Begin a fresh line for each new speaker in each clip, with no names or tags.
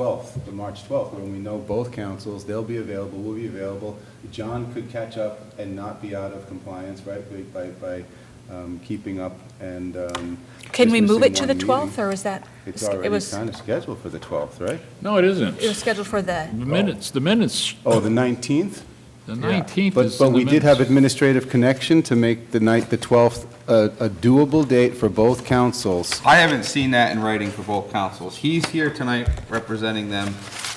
12th, the March 12th, when we know both councils, they'll be available, we'll be available. John could catch up and not be out of compliance, right, by- by, by um, keeping up and. um,
Can we
just
move it to
missing
the
one meeting.
12th, or is that?
It's
it
already
was-
kind of scheduled for the 12th, right?
No, it isn't.
It was scheduled for the,
The minutes, the minutes,
Oh, the 19th?
the 19th
But,
is
but
in the
we did have
minutes.
administrative connection to make the night, the 12th, a a doable date for both councils.
I haven't seen that in writing for both councils. He's here tonight representing them,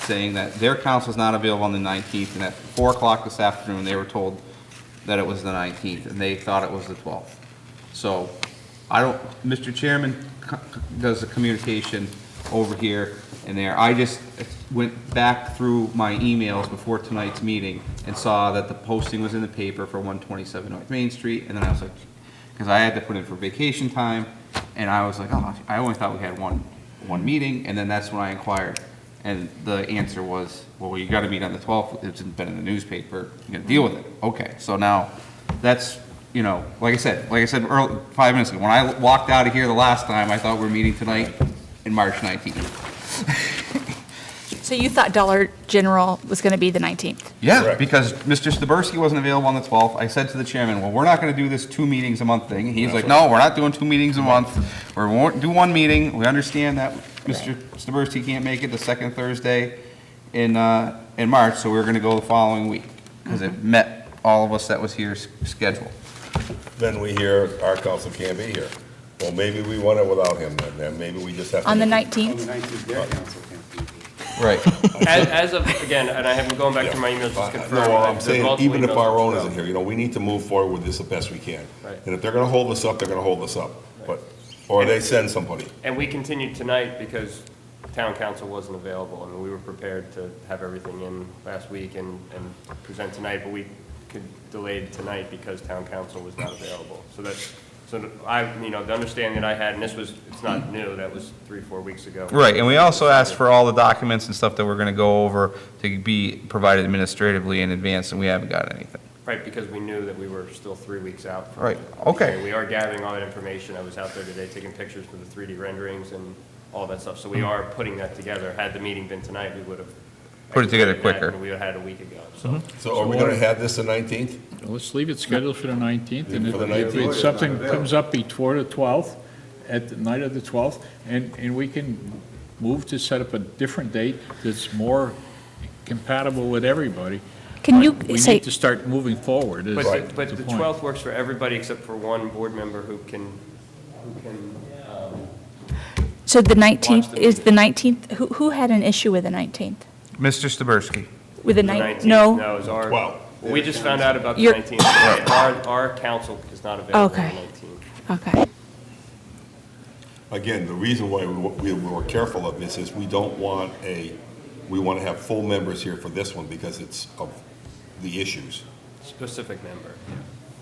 saying that their council's not available on the 19th, and at 4 o'clock this afternoon, they were told that it was the 19th, and they thought it was the 12th. So, I don't, Mr. Chairman co- does the communication over here and there. I just went back through my emails before tonight's meeting and saw that the posting was in the paper for 127 North Main Street, and then I was like, because I had to put in for vacation time, and I was like, oh, I only thought we had one, one meeting, and then that's when I inquired. And the answer was, well, you gotta meet on the 12th, it's been in the newspaper, you gotta deal with it. Okay, so now, that's, you know, like I said, like I said earl five minutes ago, when I walked out of here the last time, I thought we were meeting tonight in March 19th.
so you thought Dollar General was going to be the 19th?
Yeah, because Mr. Staberski wasn't available on the 12th. I said to the chairman, well, we're not going to do this two meetings a month thing. He's like, no, we're not doing two meetings a month. We're, we won't do one meeting. We understand that Mr. Staberski can't make it the second Thursday in, uh, in March, so we're going to go the following week because it met all of us that was here's schedule.
Then we hear our council can't be here. Well, maybe we want it without him then, then maybe we just have to.
On the
On the
19th?
19th, their council can't be here.
Right.
As, as of, again, and I haven't gone back to my emails just confirm.
No,
that
I'm
there's
saying,
multiple
even if
emails.
our own isn't here, you know, we need to move forward with this the best we can.
Right.
And if they're gonna hold us up, they're gonna hold us up, but, or they send somebody.
And we continued tonight because town council wasn't available, and we were prepared to have everything in last week and, and present tonight, but we could delay tonight because town council was not available. So that's, so that I, you know, the understanding that I had, and this was, it's not new, that was three, four weeks ago.
Right, and we also asked for all the documents and stuff that we're going to go over to be provided administratively in advance, and we haven't got anything.
Right, because we knew that we were still three weeks out. from-
Right, okay.
We are gathering all that information. I was out there today taking pictures for the 3D renderings and all that stuff. So
Hmm.
we are putting that together. Had the meeting been tonight, we would have.
Put it together
executed that,
quicker. Mm-hmm.
and We would have had a week ago, so.
So are we gonna have this the nineteenth?
Let's leave it scheduled for the 19th, and
For the
if-
19th.
if something comes up before the 12th, at the night of the 12th, and, and we can move to set up a different date that's more compatible with everybody.
Can you
But We
say,
need to start moving forward, is
But, the- but
the
the
point.
12th works for everybody except for one board member who can, who can, um,
so the
Watch
19th,
the
is the 19th, who, who had an issue with the 19th?
Mr. Staberski?
With the
the
19th?
19th.
No?
is our.
Well-
We just found out about the
Your-
19th. today. Our, our council is not available on
Okay.
the 19th.
Okay.
Again, the reason why we, we were careful of this is we don't want a, we wanna have full members here for this one because it's of the issues.
Specific member.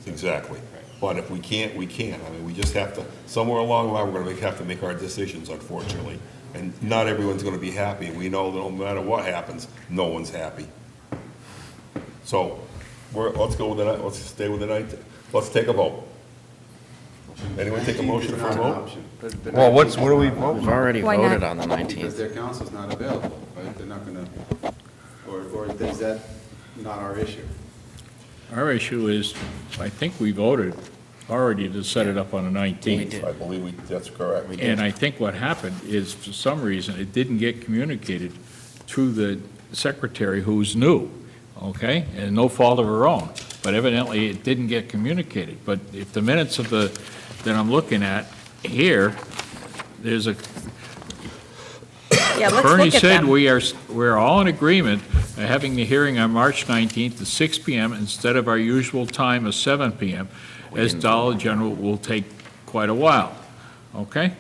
Exactly. But if we can't, we can't. I mean, we just have to, somewhere along the line, we're gonna make- have to make our decisions, unfortunately. And not everyone's gonna be happy. We know that no matter what happens, no one's happy. So, we're, let's go with the, ni- let's stay with the night, let's take a vote. Anyone take a
19th
motion
is
for
not
a
an
vote?
option,
The- the
Well, what's,
19th
what do we, vote?
We've already
Why not?
voted on the
Because
19th.
their council's not available, right? They're not gonna, or, or is that not our issue?
Our issue is, I think we voted already to set it up on the 19th.
We did.
I believe we, that's correct.
And I think what happened is, for some reason, it didn't get communicated through the secretary who's new, okay? And no fault of her own, but evidently it didn't get communicated. But if the minutes of the, that I'm looking at here, there's a,
Yeah, let's
Bernie
look at
said
them.
we are, s- we're all in agreement of having the hearing on March 19th at 6 PM instead of our usual time of 7 PM, as Dollar General will take quite a while, okay?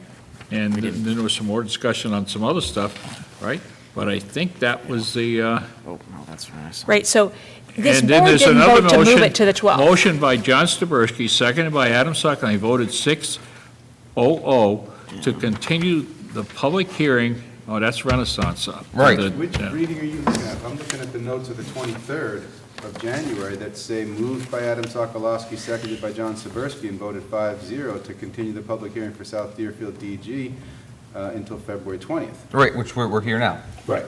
And then there was some more discussion on some other stuff, right? But I think that was the, uh,
Oh, no, that's what I saw.
Right, so this
and then
board
there's
didn't
another
vote to move
motion-
it to the 12th.
Motion by John Staberski, seconded by Adam Suckling, voted 6-0-0 to continue the public hearing, oh, that's Renaissance. uh, for
Right.
the-
Which
yeah.
reading are you looking at? I'm looking at the notes of the 23rd of January that say moved by Adam Sokolowski, seconded by John Saversky, and voted 5-0 to continue the public hearing for South Deerfield DG
uh, until February 20th.
Right, which we're, we're here now.
Right.